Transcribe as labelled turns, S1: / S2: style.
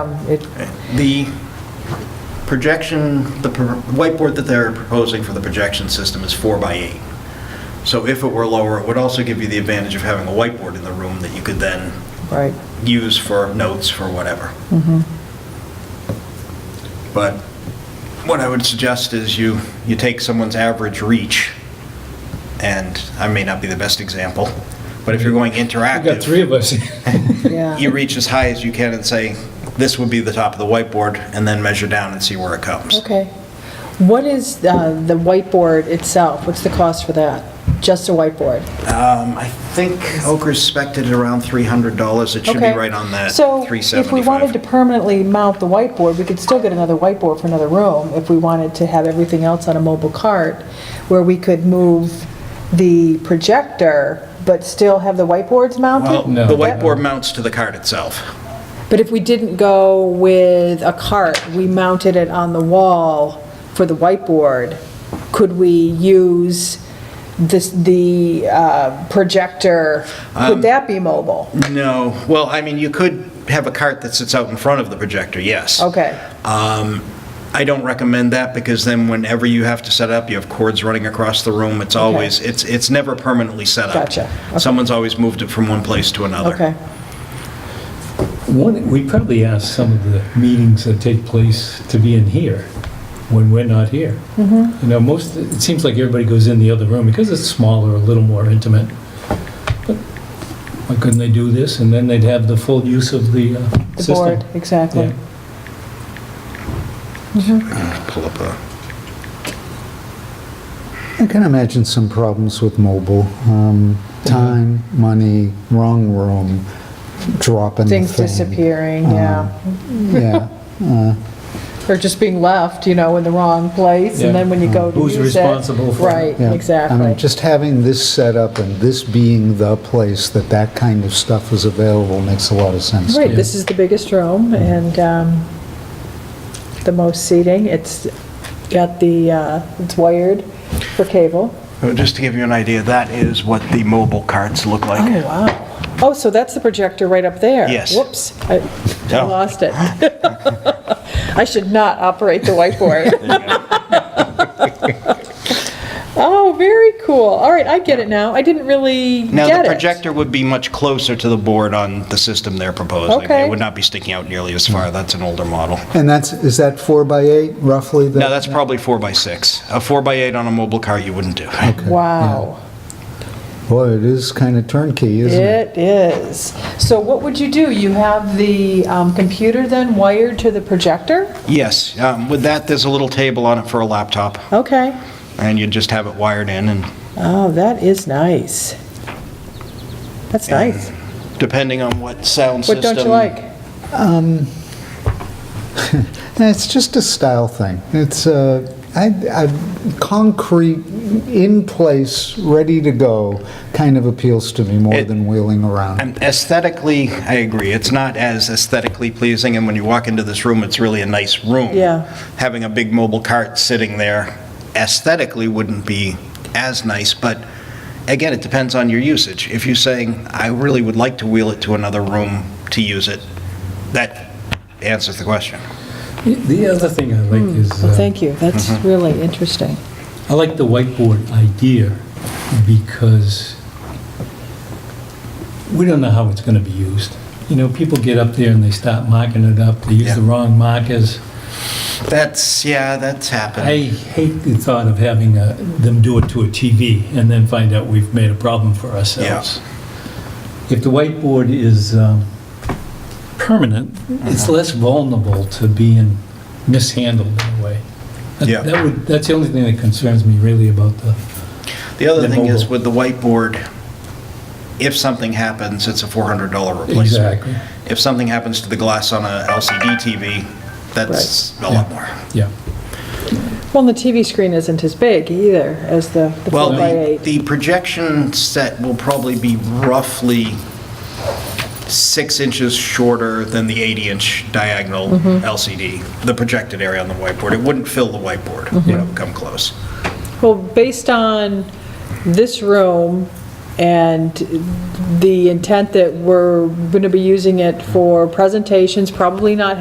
S1: Um, it,
S2: The projection, the pro- whiteboard that they're proposing for the projection system is four by eight. So if it were lower, it would also give you the advantage of having a whiteboard in the room that you could then
S1: right.
S2: use for notes for whatever.
S3: Mm-hmm.
S2: But what I would suggest is you, you take someone's average reach, and I may not be the best example, but if you're going interactive.
S3: We've got three of us.
S2: you
S1: Yeah,
S2: reach as high as you can and say, this would be the top of the whiteboard, and then measure down and see where it comes.
S1: okay. What is uh, the whiteboard itself? What's the cost for that? Just a whiteboard?
S2: Um, I think Oker's spec'd it around $300. It should be
S1: Okay.
S2: right on that
S1: So if we wanted to
S2: 375.
S1: permanently mount the whiteboard, we could still get another whiteboard for another room if we wanted to have everything else on a mobile cart where we could move the projector but still have the whiteboards
S2: Well,
S1: mounted?
S3: No.
S2: Oh, the whiteboard mounts to the card itself.
S1: But if we didn't go with a cart, we mounted it on the wall for the whiteboard, could we use this, the uh, projector?
S3: Um,
S1: Would that be mobile?
S2: No, well, I mean, you could have a cart that sits out in front of the projector, yes.
S1: Okay.
S2: Um, I don't recommend that, because then whenever you have to set up, you have cords running across the room. It's always, it's, it's never permanently set up.
S1: Gotcha. Okay.
S2: Someone's always moved it from one place to another.
S1: Okay,
S3: One, we probably ask some of the meetings that take place to be in here when we're not here.
S1: Mm-hmm.
S3: You know, most, it seems like everybody goes in the other room because it's smaller, a little more intimate. But Why couldn't they do this? And then they'd have the full use of the uh,
S1: the
S3: system.
S1: board, exactly.
S3: Yeah.
S2: Pull up a.
S4: I can imagine some problems with mobile. Um,
S1: Mm-hmm.
S4: Time, money, wrong room, dropping the
S1: Things
S4: thing. um,
S1: disappearing, yeah,
S4: Yeah,
S1: or just being left, you know, in the wrong place, and
S3: Yeah.
S1: then when you go to use
S3: Who's
S1: it.
S3: responsible for it?
S1: Right,
S4: yeah. I mean,
S1: exactly.
S4: just having this set up and this being the place that that kind of stuff is available makes a lot of sense.
S1: Right, this is the biggest
S2: Mm-hmm.
S1: room and um, the most seating. It's got the, uh, it's wired for cable.
S2: So Just to give you an idea, that is what the mobile carts look
S1: Oh,
S2: like.
S1: wow. Oh, so that's the projector right up there?
S2: Yes.
S1: Whoops, I I
S2: Oh.
S1: lost it. I should not operate the whiteboard. Oh, very cool. All right, I get it now. I didn't really get it.
S2: Now, the projector would be much closer to the board on the system they're proposing.
S1: Okay.
S2: It would not be sticking out nearly as far. That's an older model.
S4: And that's, is that four by eight roughly? the-
S2: Now, that's probably four by six. A four by eight on a mobile cart, you wouldn't do.
S1: Wow,
S4: Boy, it is kind of turnkey, isn't it?
S1: it is. So what would you do? You have the um, computer then wired to the projector?
S2: Yes, um, with that, there's a little table on it for a laptop,
S1: Okay.
S2: and you'd just have it wired in, and
S1: Oh, that is nice. That's nice.
S2: depending on what sound
S1: What
S2: system.
S1: don't you like?
S4: It's just a style thing. It's uh, I, I, concrete, in place, ready to go, kind of appeals to me more
S2: It-
S4: than wheeling around.
S2: Um, Aesthetically, I agree. It's not as aesthetically pleasing, and when you walk into this room, it's really a nice room.
S1: Yeah.
S2: Having a big mobile cart sitting there aesthetically wouldn't be as nice, but again, it depends on your usage. If you're saying, I really would like to wheel it to another room to use it, that answers the question.
S3: The other thing I like is,
S1: Hmm. Well,
S3: uh,
S1: thank you. That's
S2: Mm-hmm.
S1: really interesting.
S3: I like the whiteboard idea because we don't know how it's going to be used. You know, people get up there and they start marking it up, they use the
S2: Yeah.
S3: wrong markers.
S2: That's, yeah, that's
S3: I
S2: happened.
S3: hate the thought of having uh, them do it to a TV and then find out we've made a problem for ourselves. If the whiteboard is um, permanent, it's
S2: Uh-huh.
S3: less vulnerable to being mishandled in a way. That-
S2: Yeah.
S3: That would, that's the only thing that concerns me really about the,
S2: The other
S3: The
S2: thing is
S3: mobile.
S2: with the whiteboard, if something happens, it's a $400 replacement.
S3: exactly,
S2: if something happens to the glass on a LCD TV, that's a lot more.
S3: yeah.
S1: Well, and the TV screen isn't as big either as the the
S2: Well,
S1: four by
S2: the,
S1: eight.
S2: the projection set will probably be roughly six inches shorter than the 80-inch diagonal LCD, the projected area on the whiteboard. It wouldn't fill the whiteboard, it would come close.
S1: Well, based on this room and the intent that we're going to be using it for presentations, probably not